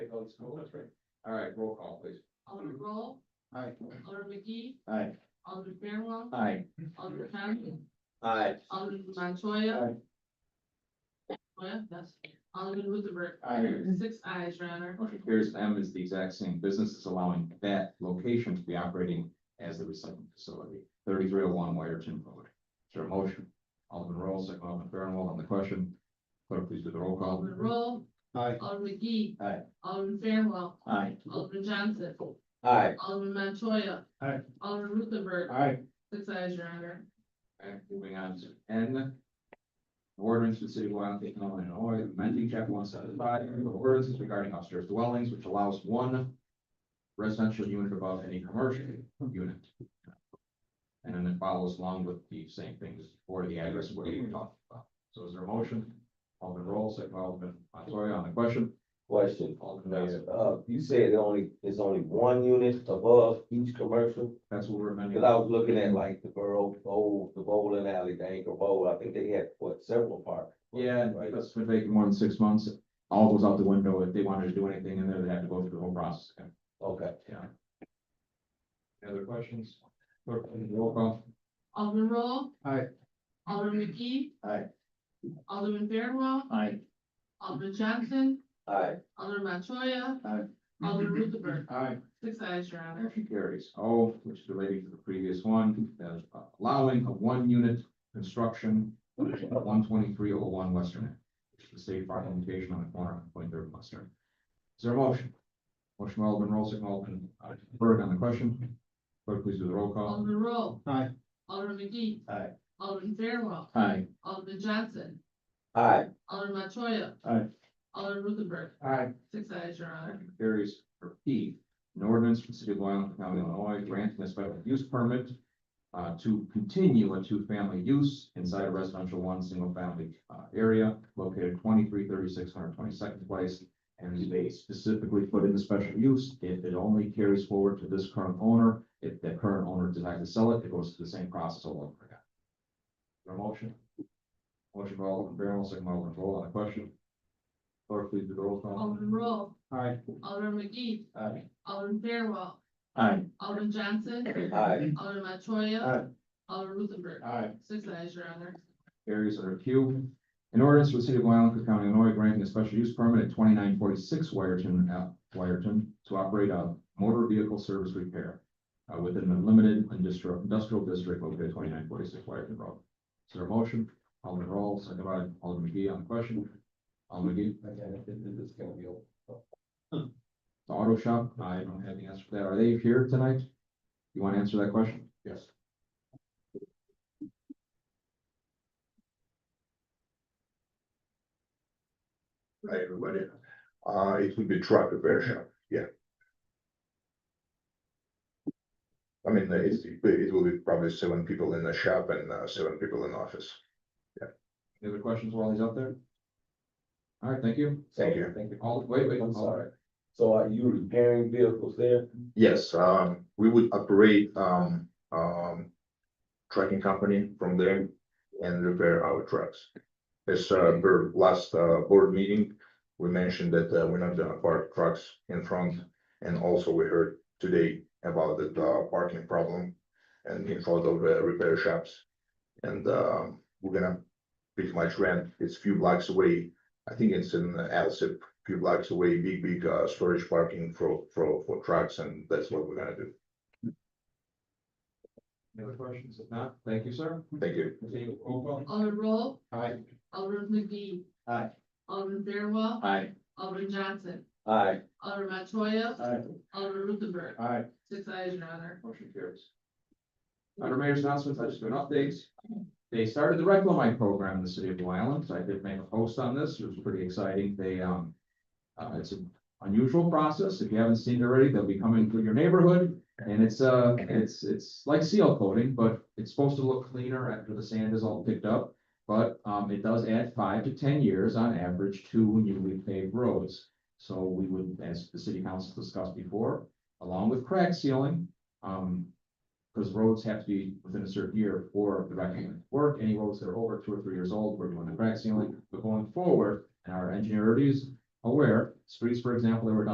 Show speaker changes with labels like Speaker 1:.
Speaker 1: Valley School, that's right. All right, roll call, please.
Speaker 2: Alderman Roll,
Speaker 1: Aye.
Speaker 2: Alderman McGee,
Speaker 1: Aye.
Speaker 2: Alderman Fairwell,
Speaker 1: Aye.
Speaker 2: Alderman Harrington,
Speaker 1: Aye.
Speaker 2: Alderman Montoya. Montoya, yes, Alderman Ruthenberg.
Speaker 1: Aye.
Speaker 2: Six ayes, your honor.
Speaker 1: Motion carries M is the exact same business is allowing that location to be operating as the recycling facility, thirty-three oh one Wyerton Road. Is there a motion? Alderman Roll, second Alderman Fairwell on the question. Clerk, please do the roll call.
Speaker 2: Alderman Roll,
Speaker 1: Aye.
Speaker 2: Alderman McGee.
Speaker 1: Aye.
Speaker 2: Alderman Fairwell,
Speaker 1: Aye.
Speaker 2: Alderman Johnson,
Speaker 1: Aye.
Speaker 2: Alderman Montoya.
Speaker 1: Aye.
Speaker 2: Alderman Ruthenberg,
Speaker 1: Aye.
Speaker 2: six ayes, your honor.
Speaker 1: Okay, moving on to N. Ordinance to the city of Wyoming, County of Illinois, amending chapter one seventy-five, ordinances regarding upstairs dwellings, which allows one residential unit above any commercial unit. And then it follows along with the same things for the address where we talked about. So is there a motion? Alderman Roll, second by Alderman Montoya on the question.
Speaker 3: Question,
Speaker 1: Alderman Mayor,
Speaker 3: Mayor, uh, you said it only, it's only one unit above each commercial?
Speaker 1: that's what we're amending.
Speaker 3: Cause I was looking at like the borough, bowl, the bowling alley, the anchor bowl, I think they had, what, several parks?
Speaker 1: Yeah, and
Speaker 3: Right,
Speaker 1: because it's been vacant more than six months, all goes out the window. If they wanted to do anything in there, they had to go through the whole process. again.
Speaker 3: okay.
Speaker 1: Yeah. Any other questions? Clerk, please roll call.
Speaker 2: Alderman Roll.
Speaker 1: Aye.
Speaker 2: Alderman McGee.
Speaker 1: Aye.
Speaker 2: Alderman Fairwell,
Speaker 1: Aye.
Speaker 2: Alderman Johnson,
Speaker 3: Alright,
Speaker 2: Alderman Montoya.
Speaker 1: Aye.
Speaker 2: Alderman Ruthenberg,
Speaker 1: Aye.
Speaker 2: six ayes, your honor.
Speaker 1: Motion carries. O, which is related to the previous one, that is allowing a one-unit construction at one twenty-three oh one Western, Ave, which is the state park location on the corner of Point Third and Western. Is there a motion? Motion by Alderman Roll, second by Alderman uh, Berg on the question. Clerk, please do the roll call.
Speaker 2: Alderman Roll.
Speaker 1: Aye.
Speaker 2: Alderman McGee.
Speaker 1: Aye.
Speaker 2: Alderman Fairwell,
Speaker 1: Aye.
Speaker 2: Alderman Johnson,
Speaker 3: alright,
Speaker 2: Alderman Montoya.
Speaker 1: Aye.
Speaker 2: Alderman Ruthenberg,
Speaker 1: Aye.
Speaker 2: six ayes, your honor.
Speaker 1: Motion Carries for P, an ordinance for the city of Blue County, Illinois, granting a special use permit uh, to continue a two-family use inside a residential one, single-family uh, area located twenty-three thirty-six hundred twenty-second place. And they specifically put in the special use, if it only carries forward to this current owner, if the current owner decides to sell it, it goes through the same process all over again. Is there a motion? Motion by Alderman Barrel, second by Alderman Roll on the question. Clerk, please do the roll call.
Speaker 2: Alderman Roll,
Speaker 1: Aye.
Speaker 2: Alderman McGee,
Speaker 1: Aye.
Speaker 2: Alderman Fairwell,
Speaker 1: Aye.
Speaker 2: Alderman Johnson,
Speaker 3: alright,
Speaker 2: Alderman Montoya. Alderman Ruthenberg,
Speaker 1: Aye.
Speaker 2: six ayes, your honor.
Speaker 1: Carries under Q. An ordinance for the city of Blue Island, County, Illinois, granting a special use permit at twenty-nine forty-six Wyerton, uh, Wyerton to operate a motor vehicle service repair uh, within the limited industrial, industrial district located twenty-nine forty-six Wyerton Road. Is there a motion? Alderman Roll, second by Alderman McGee on the question. Alderman McGee,
Speaker 3: This is gonna be open.
Speaker 1: the auto shop, I don't have the answer for that. Are they here tonight? You want to answer that question? Yes.
Speaker 4: Hi, everybody. Uh, it would be truck repair shop, yeah. I mean, it's, it will be probably seven people in the shop and uh, seven people in office.
Speaker 1: Any other questions while he's up there? All right, thank you.
Speaker 4: Thank you.
Speaker 3: Thank you.
Speaker 1: All, wait, wait. Alderman-
Speaker 3: I'm sorry, so are you repairing vehicles there?
Speaker 4: Yes, um, we would operate, um, um, trucking company from there and repair our trucks. As, uh, per last, uh, board meeting, we mentioned that, uh, we're not gonna park trucks in front. And also we heard today about the, uh, parking problem and in front of the repair shops. And, um, we're gonna pretty much rent, it's few blocks away, I think it's in uh, Alsip, few blocks away, big, big, uh, storage parking for, for, for trucks, and that's what we're gonna do.
Speaker 1: Any other questions? If not, thank you, sir.
Speaker 4: Thank you.
Speaker 1: Continue, roll call.
Speaker 2: Alderman Roll,
Speaker 1: Aye.
Speaker 2: Alderman McGee.
Speaker 1: Aye.
Speaker 2: Alderman Fairwell,
Speaker 1: Aye.
Speaker 2: Alderman Johnson,
Speaker 3: Alright,
Speaker 2: Alderman Montoya,
Speaker 1: Aye.
Speaker 2: Alderman Ruthenberg,
Speaker 1: Aye.
Speaker 2: six ayes, your honor.
Speaker 1: Motion carries. Under mayor's announcements, I just do an update. They started the Reclamite program in the city of Blue Island. I did make a post on this. It was pretty exciting. They, um, uh, it's an unusual process. If you haven't seen it already, they'll be coming through your neighborhood. And it's, uh, it's, it's like seal coating, but it's supposed to look cleaner after the sand is all picked up. But, um, it does add five to ten years on average to newly paved roads. So we would, as the city council discussed before, along with crack sealing, um, because roads have to be within a certain year for the recommended work, any roads that are over two or three years old, we're doing the crack sealing, but going forward, and our engineer is aware, streets, for example, that were done